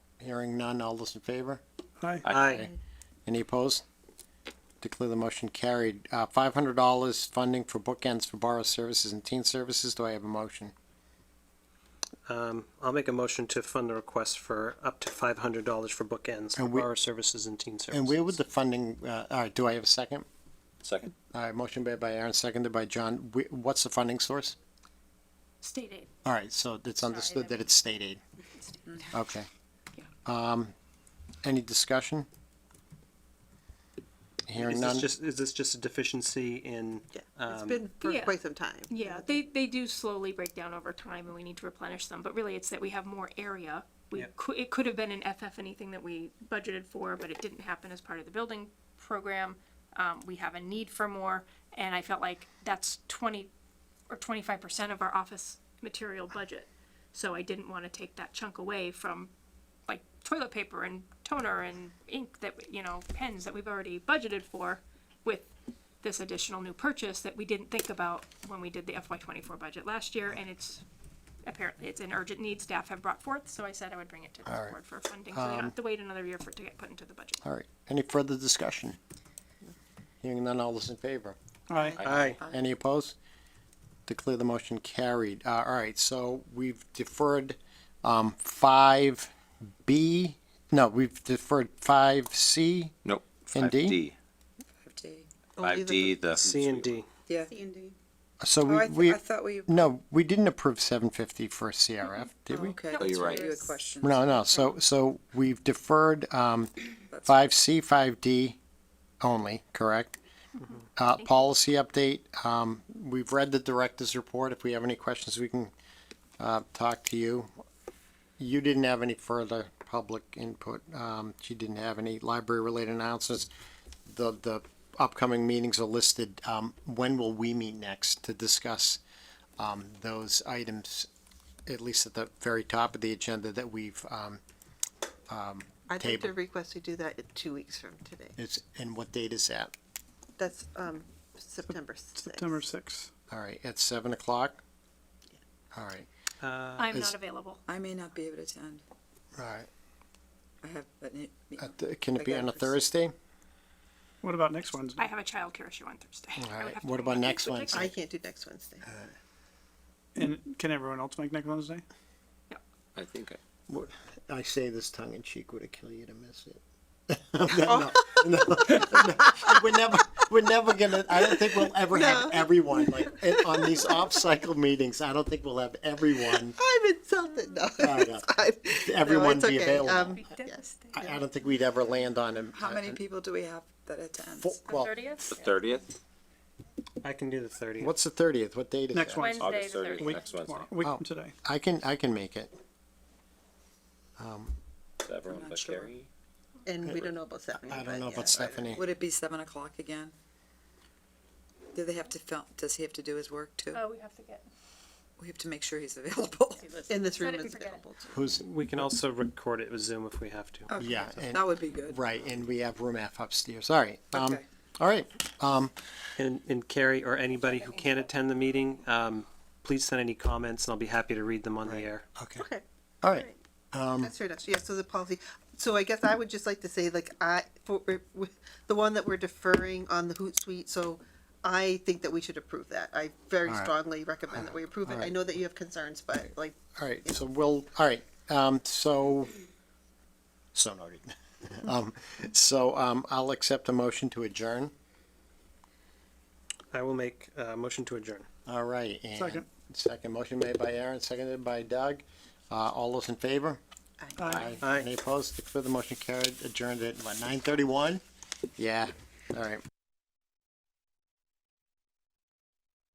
Hearing none, all those in favor? Aye. Aye. Any opposed? Declare the motion carried. Uh, five hundred dollars funding for bookends for borrow services and teen services. Do I have a motion? Um, I'll make a motion to fund the request for up to five hundred dollars for bookends for And we- borrower services and teen services. And where would the funding, uh, all right, do I have a second? Second. All right, motion made by Aaron, seconded by John. Wh- What's the funding source? State aid. All right, so it's Sorry, understood that- that it's state aid. Okay. Um, any discussion? Hearing Is none? this just, is this just a deficiency in, Yeah, it's um, been for yeah. quite some time. Yeah, they, they do slowly break down over time and we need to replenish them, but really it's that we have more area. We Yeah. could, it could have been an FF anything that we budgeted for, but it didn't happen as part of the building program. Um, we have a need for more and I felt like that's twenty or twenty-five percent of our office material budget. So I didn't wanna take that chunk away from like toilet paper and toner and ink that, you know, pens that we've already budgeted for with this additional new purchase that we didn't think about when we did the FY twenty-four budget last year, and it's apparently, it's an urgent need staff have brought forth, so I said I would bring it to the board for funding, so they don't have Um, to wait another year for it to get put into the budget. All right, any further discussion? Hearing none, all those in favor? Aye. aye, Any opposed? Declare the motion carried. Uh, all right, so we've deferred, um, five B, no, we've deferred five C. Nope. And D? 5D. Only Five D, the. C and D? Yeah. So Oh, I, we, th- we, I thought we. no, we didn't approve seven fifty for CRF, did we? Okay. Oh, you're right. Do a question. No, no, so, so we've deferred, um, five C, five D only, correct? Uh, policy update, um, we've read the director's report. If we have any questions, we can, uh, talk to you. You didn't have any further public input. Um, she didn't have any library-related announcements. The, the upcoming meetings are listed. Um, when will we meet next to discuss, um, those items, at least at the very top of the agenda that we've, um, I'd like to Table. request we do that in two weeks from today. it's, and what date is that? That's, um, September sixth. September sixth. All right, at seven o'clock? All right, Uh, I'm is- not available. I may not be able to attend. all right. I have, but it, At the- Can it be on a Again, for s- Thursday? What about next Wednesday? I have a childcare issue on Thursday. I would Alright, have to what go about back. next Would Wednesday? I can't do next Wednesday. Uh, And can everyone else make next Wednesday? I think. I- What- I say this tongue in cheek, would it kill you to miss it? No, no, no, no. We're never, we're never gonna, I don't think we'll ever have everyone, like, in- on these off-cycle meetings, I don't think we'll have everyone, I'm insulted, no. I know. it's fine. No, everyone it's be okay. available. Um, be devastated. I, I don't think we'd ever land on him. how many people do we have that attend? The Well, 30th? The thirtieth? I can do the thirtieth. what's the thirtieth, what date is Next that? one. Wednesday, August the thirtieth, 30th. next Wednesday. Tomorrow, a week Oh. from today. I can, I can make it, Is everyone not but sure. Carrie? And we don't know about Stephanie. I but don't know yeah. about Stephanie. Would it be seven o'clock again? Do they have to film, does he have to do his work too? Oh, we have to get. We have to make sure he's available. In this Set room it and is forget it. available. too. Who's, We can also record it with Zoom if we have to. Okay. yeah, and, That would be good. right, and we have room F upstairs, all right, um, Okay. all right, um, And, and Carrie or anybody who can't attend the meeting, um, please send any comments and I'll be happy to read them on the air. okay, Okay. all right. Mm. That's fair enough. Yeah, so the policy, so I guess I would just like to say, like, I, for, with the one that we're deferring on the Hootsuite, so I think that we should approve that. I very All right. strongly recommend that we approve it. I right. know that you have concerns, but like, All right, so we'll, all right, um, so, so noted. Um, so, um, I'll accept a motion to adjourn. I will make a motion to adjourn. All right, and. Second. Second, motion made by Aaron, seconded by Doug. Uh, all those in favor? Aye. Aye. Any opposed? Declare the motion carried, adjourned at, what, nine thirty-one? Yeah, all right.